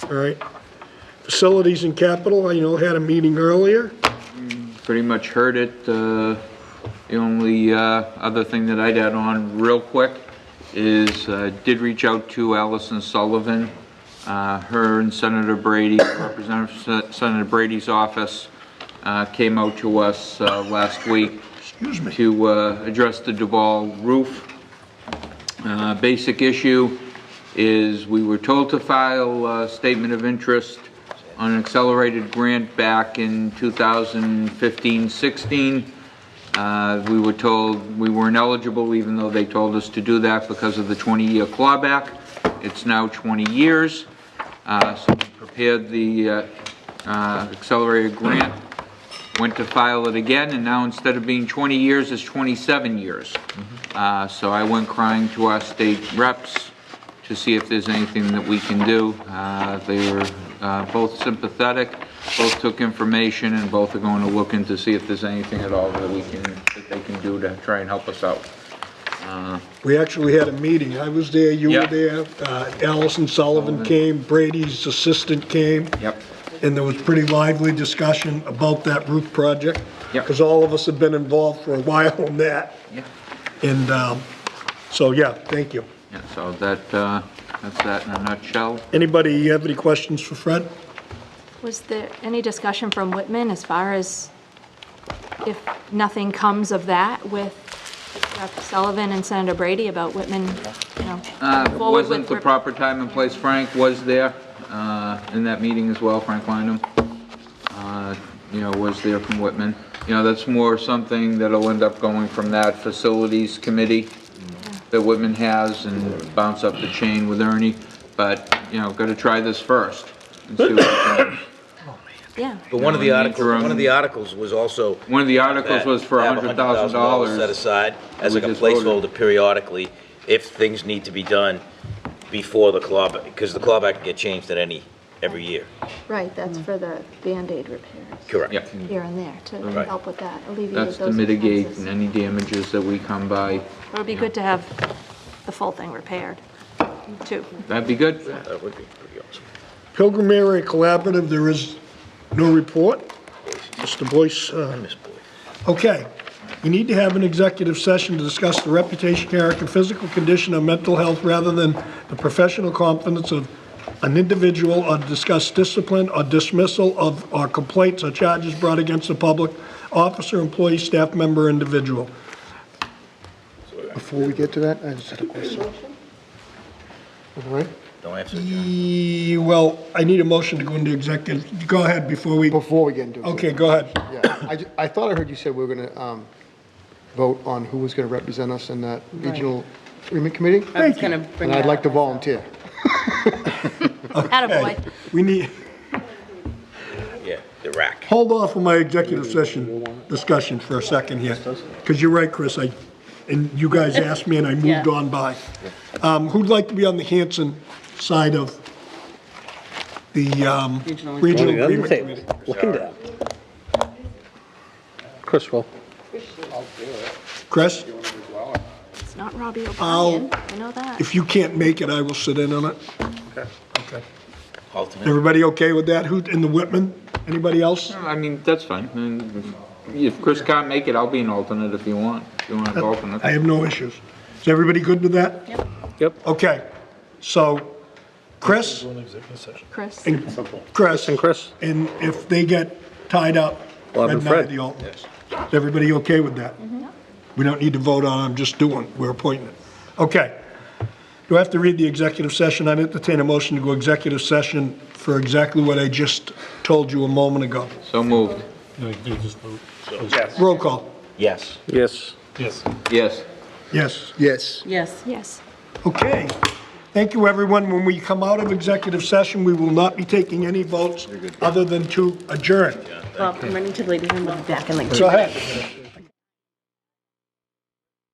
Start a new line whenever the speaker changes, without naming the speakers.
all right? Facilities and capital, I know had a meeting earlier.
pretty much heard it. Uh, The only uh, other thing that I'd add on real quick is, uh, did reach out to Allison Sullivan. Uh, Her and Senator Brady, Representative Sen- Senator Brady's office uh, came out to us uh, last week. To uh, address the Duval roof. Uh, Basic issue is we were told to file a statement of interest on an accelerated grant back in 2015-16. Uh, We were told we weren't eligible, even though they told us to do that because of the 20-year clawback. It's now 20 years. Uh, So we prepared the uh, uh, accelerated grant, went to file it again, and now instead of being 20 years, it's 27 years. Uh, So I went crying to our state reps to see if there's anything that we can do. Uh, They were uh, both sympathetic, both took information, and both are going to look into see if there's anything at all that we can, that they can do to try and help us out.
We actually had a meeting. I was there, you were
Yeah.
there, uh, Allison Sullivan came, Brady's assistant came.
Yep.
And there was pretty lively discussion about that roof project.
Yep.
Because all of us have been involved for a while on that.
Yeah.
And um, so, yeah, thank you.
Yeah, so that, uh, that's that in a nutshell.
Anybody have any questions for Fred?
Was there any discussion from Whitman as far as if nothing comes of that with Rep. Sullivan and Senator Brady about Whitman, you know?
Uh,
forward with
Wasn't the
rep-
proper time and place, Frank was there uh, in that meeting as well, Frank Wyndham, Uh, you know, was there from Whitman. You know, that's more something that'll end up going from that facilities committee that Whitman has and bounce up the chain with Ernie, but, you know, gotta try this first. and see what happens.
Yeah,
But one of the
No, in the
articles,
interim-
one of the articles was also.
One of the articles
that-
was for
to have
$100,000.
Set aside as
We
like a
just voted.
placeholder periodically if things need to be done before the clawback, because the clawback can get changed at any, every year.
Right, that's for the Band-Aid repairs
Correct.
Yeah,
here and there to
Right.
help with that, alleviate those
that's to
expenses.
mitigate any damages that we come by.
it would be good to have the full thing repaired, too.
That'd be good.
That would be pretty awesome.
Pilgrim Area Collaborative, there is no report. Mr. Boyce, uh,
Miss Boyd.
Okay, we need to have an executive session to discuss the reputation, character, physical condition, or mental health rather than the professional competence of an individual or discuss discipline or dismissal of, or complaints or charges brought against a public officer, employee, staff member, individual.
Before we get to that, I just had a question. All right,
Don't answer, John.
E- Well, I need a motion to go into executive, go ahead before we,
before we get into it.
okay, go ahead.
Yeah, I, ju- I thought I heard you said we were gonna, um, vote on who was gonna represent us in that regional agreement committee?
I was gonna bring
And I'd
that
like to
up.
volunteer.
Attaboy.
We need,
Yeah, the rack.
hold off on my executive session discussion for a second here, because you're right, Chris, I, and you guys asked me and I moved
Yeah.
on by. Um, who'd like to be on the Hanson side of the, um,
Regional
regional agreement committee?
Chris will.
Chris,
It's not Robbie O'Brien, I know that.
if you can't make it, I will sit in on it. Okay.
Ultimate.
Everybody okay with that? Who, in the Whitman? Anybody else?
I mean, that's fine. I mean, If Chris can't make it, I'll be an alternate if you want. If you want an alternate.
I have no issues. Is everybody good with that? Yep.
Yep.
Okay, so Chris
Chris,
and Chris.
And Chris?
And if they get tied up,
Bob
Red
and
Knight are
Fred.
the alternates. Is everybody okay with that? We don't need to vote on, it, I'm just doing, we're appointing it. Okay. Do I have to read the executive session? I entertain a motion to go executive session for exactly what I just told you a moment ago.
So moved.
Roll call.
Yes.
Yes.
Yes.
Yes.
Yes.
Yes.
yes.
Okay. Thank you, everyone. When we come out of executive session, we will not be taking any votes other than to adjourn.
Well, I'm running to the ladies' room, we'll be back in like two
Go ahead.